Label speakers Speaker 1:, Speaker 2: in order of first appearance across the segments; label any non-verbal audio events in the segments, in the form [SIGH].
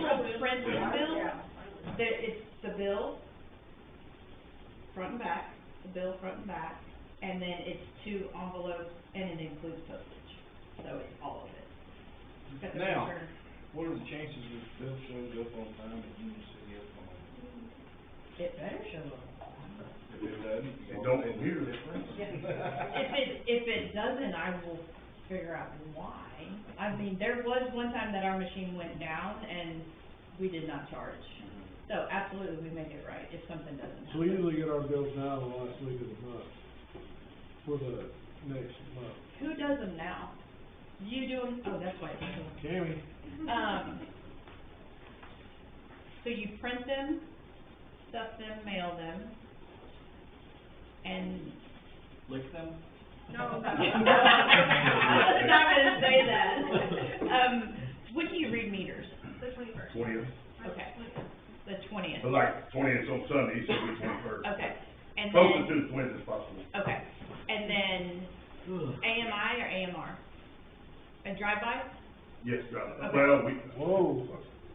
Speaker 1: there's the bill, there, it's the bill, front and back, the bill front and back, and then it's two envelopes, and it includes postage, so it's all of it. But the
Speaker 2: Now,
Speaker 1: return-
Speaker 2: What are the chances that the bill shows up on time at Union City Oklahoma?
Speaker 1: It better show up.
Speaker 2: If it doesn't, you
Speaker 3: It
Speaker 2: don't
Speaker 3: don't
Speaker 2: hear
Speaker 3: appear.
Speaker 2: it.
Speaker 1: If it, if it doesn't, I will figure out why. I mean, there was one time that our machine went down and we did not charge. So absolutely, we make it right if something doesn't
Speaker 4: So we
Speaker 1: happen.
Speaker 4: usually get our bills now the last week of the month, for the next month.
Speaker 1: Who does them now? You do them, oh, that's why. it's so-
Speaker 4: Cammy,
Speaker 1: Um, so you print them, stuff them, mail them, and
Speaker 2: Lick them?
Speaker 1: No,
Speaker 2: [LAUGHS]
Speaker 3: [LAUGHS]
Speaker 1: no. I was not gonna say that. Um, when do you read meters?
Speaker 5: The twenty-first.
Speaker 3: Twentieth,
Speaker 1: Okay. The twentieth?
Speaker 3: but like twentieth on Sunday, so we twenty-first.
Speaker 1: Okay, and
Speaker 3: Closest
Speaker 1: then,
Speaker 3: to the twentieth as possible.
Speaker 1: okay, and then AMI or AMR? A drive-by?
Speaker 3: Yes, drive,
Speaker 1: Okay.
Speaker 3: well, we,
Speaker 4: whoa,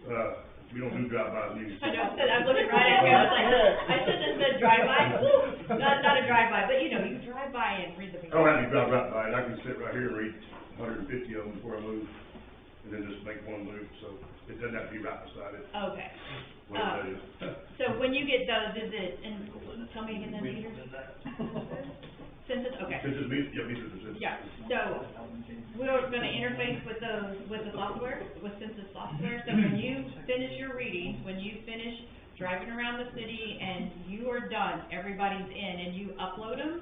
Speaker 3: uh, we don't do drive-bys anymore.
Speaker 1: I know, I said, I'm looking right at you, I was like, I should have said drive-by, woo, not, not a drive-by, but you know, you drive by and read the.
Speaker 3: Oh, I don't have to drive right by it, I can sit right here and read hundred and fifty of them before I move, and then just make one move, so it doesn't have to be right beside it,
Speaker 1: Okay, Uh,
Speaker 3: whatever that is.
Speaker 1: so when you get those, is it, and tell me again the meters? Census, okay.
Speaker 3: Census means, yeah, means it's a census.
Speaker 1: Yeah, so we're gonna interface with the, with the software, with census software, so when you finish your readings, when you finish driving around the city and you are done, everybody's in, and you upload them,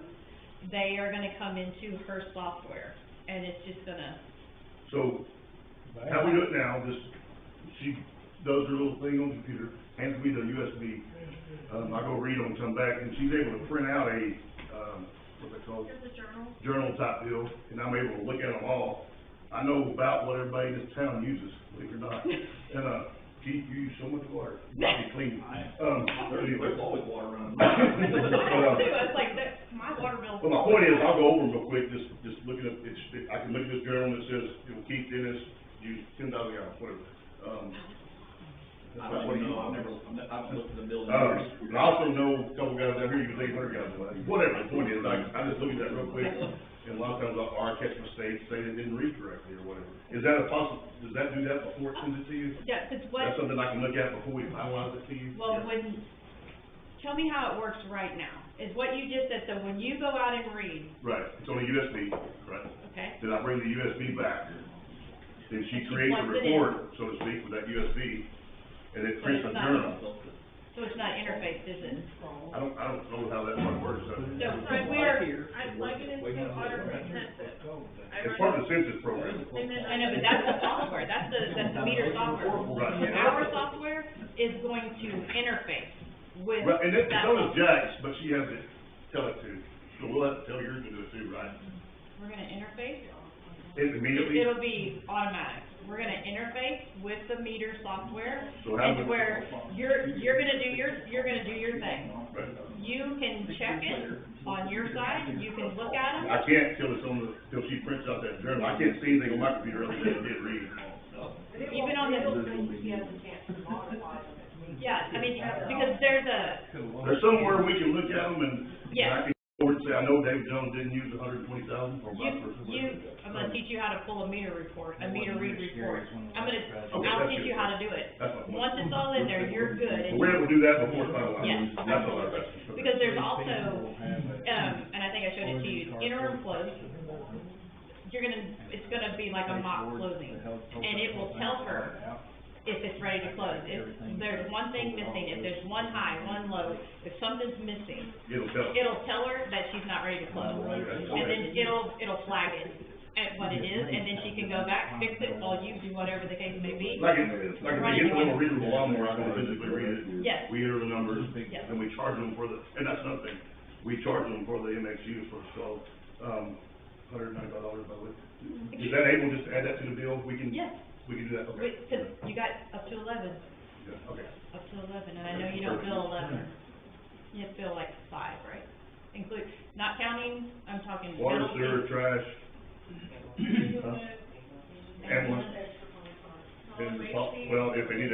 Speaker 1: they are gonna come into her software, and it's just gonna,
Speaker 3: So How we do it now, just, she does her little thing on the computer, hands me the USB. Um, I go read them, come back, and she's able to print out a, um, what's it called,
Speaker 5: Here's the
Speaker 3: [LAUGHS]
Speaker 1: [LAUGHS]
Speaker 5: journal.
Speaker 3: journal type deal, and I'm able to look at them all. I know about what everybody in this town uses, believe it or not. And, uh, gee, you use so much water, might be clean. Um, but anyway.
Speaker 2: water around.
Speaker 3: But, uh,
Speaker 1: too, I was like, that's my water bill.
Speaker 3: well, my point is, I'll go over them real quick, just, just looking at, it's, I can look at this journal that says, you know, Keith Dennis used ten thousand gallons, whatever. Um,
Speaker 2: I don't even know, I've never, I haven't looked at the bill in
Speaker 3: Uh,
Speaker 2: years.
Speaker 3: and I also know a couple guys out here, you can take hundred gallons, but whatever, the point is, I, I just look at that real quick, and a lot of times I'll, or I catch mistakes, say they didn't read correctly or whatever. Is that a possi, does that do that before it sends it to you?
Speaker 1: Yeah, 'cause what.
Speaker 3: That's something I can look at before we finalize it to you?
Speaker 1: Well, when, tell me how it works right now, is what you just said, so when you go out and read,
Speaker 3: Right, it's on a USB, right,
Speaker 1: okay?
Speaker 3: then I bring the USB back, then
Speaker 1: And
Speaker 3: she
Speaker 1: she
Speaker 3: creates a
Speaker 1: plugs it in.
Speaker 3: report, so to speak, with that USB, and it
Speaker 1: So
Speaker 3: prints
Speaker 1: it's
Speaker 3: a
Speaker 1: not-
Speaker 3: journal.
Speaker 1: So it's not interfaced, is it?
Speaker 3: I don't, I don't know how that one works, so.
Speaker 1: So when we're,
Speaker 5: I plug it into Autodesk Census. I
Speaker 3: It's part
Speaker 5: run
Speaker 3: of the census program,
Speaker 5: it, and then
Speaker 1: I know, but that's the software, that's the, that's the meter software.
Speaker 3: Right.
Speaker 1: Our software is going to interface with
Speaker 3: Right, and that,
Speaker 1: that
Speaker 3: so does
Speaker 1: software.
Speaker 3: Jack's, but she has to tell it to, so we'll have to tell yours to do it too, right?
Speaker 1: We're gonna interface,
Speaker 3: It immediately,
Speaker 1: it'll be automatic, we're gonna interface with the meter software,
Speaker 3: so how
Speaker 1: and
Speaker 3: would,
Speaker 1: where you're, you're gonna do your, you're gonna do your thing.
Speaker 3: right,
Speaker 1: You can check it on your side, you can look
Speaker 3: I
Speaker 1: at them,
Speaker 3: can't till it's on the, till she prints out that journal, I can't see anything on my computer other than it did read.
Speaker 1: even on the, yeah, I mean, because there's a,
Speaker 3: There's somewhere we can look at them and, and I
Speaker 1: yeah,
Speaker 3: can go and say, I know David Jones didn't use a hundred and twenty thousand for my
Speaker 1: you,
Speaker 3: person.
Speaker 1: you, I'm gonna teach you how to pull a meter report, a meter read report. I'm gonna,
Speaker 3: Okay,
Speaker 1: I'll
Speaker 3: that's
Speaker 1: teach
Speaker 3: good.
Speaker 1: you how to do it.
Speaker 3: That's my point.
Speaker 1: Once it's all in there, you're good,
Speaker 3: But [LAUGHS]
Speaker 1: and,
Speaker 3: we're able to do that before it's finalized.
Speaker 1: Yes,
Speaker 3: That's all I've asked. Okay.
Speaker 1: because there's also, um, and I think I showed it to you, interim close, you're gonna, it's gonna be like a mock closing.
Speaker 6: and it will tell her
Speaker 1: if it's ready to close. If there's one thing missing, if there's one high, one low, if something's missing,
Speaker 3: It'll tell.
Speaker 1: it'll tell her that she's not ready to close. And then it'll, it'll flag it at what it is, and then she can go back, fix it while you do whatever the case may be.
Speaker 3: Like, if- like if they get the little readable lawnmower, I can physically read it.
Speaker 1: Yes,
Speaker 3: We enter the numbers,
Speaker 1: yes.
Speaker 3: and we charge them for the, and that's another thing, we charge them for the MXU for installed, um, hundred and ninety-five dollars by the way. Is that able just to add that to the bill? We can,
Speaker 1: Yes,
Speaker 3: we can do that, okay.
Speaker 1: wait, 'cause you got up to eleven,
Speaker 3: Yeah, Okay.
Speaker 1: up to eleven, and I know you don't bill eleven. You bill like five, right? Include, not counting, I'm talking.
Speaker 3: Water,
Speaker 1: penalty,
Speaker 3: sewer, trash,
Speaker 5: it.
Speaker 3: ambulance, and the, pol- well, if any of that